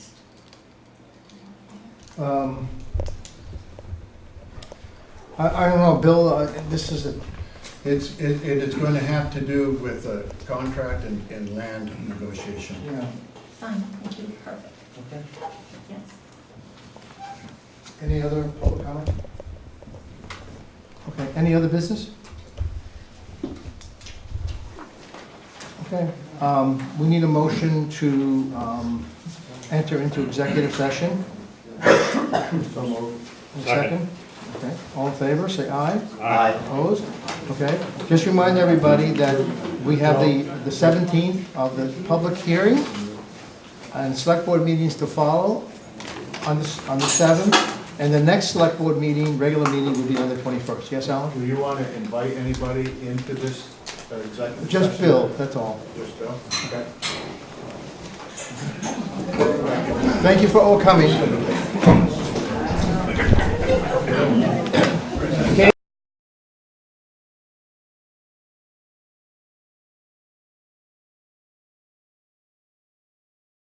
Um, I, I don't know, Bill, uh, this is a, It's, it, it is going to have to do with uh contract and, and land negotiation. you know, Fine, thank you, perfect, okay. yes. Any other public comment? Okay, any other business? Okay, um, we need a motion to, um, enter into executive session. So moved. A Second. Okay, all in favor, say aye. Aye. Opposed? Okay, just remind everybody that we have the, the seventeenth of the public hearing and select board meetings to follow on the, s- on the seventh. And the next select board meeting, regular meeting will be on the twenty-first. Yes, Alan? Do you want to invite anybody into this uh, executive Just session? Bill, that's all. Just Bill? Okay. Thank you for all coming.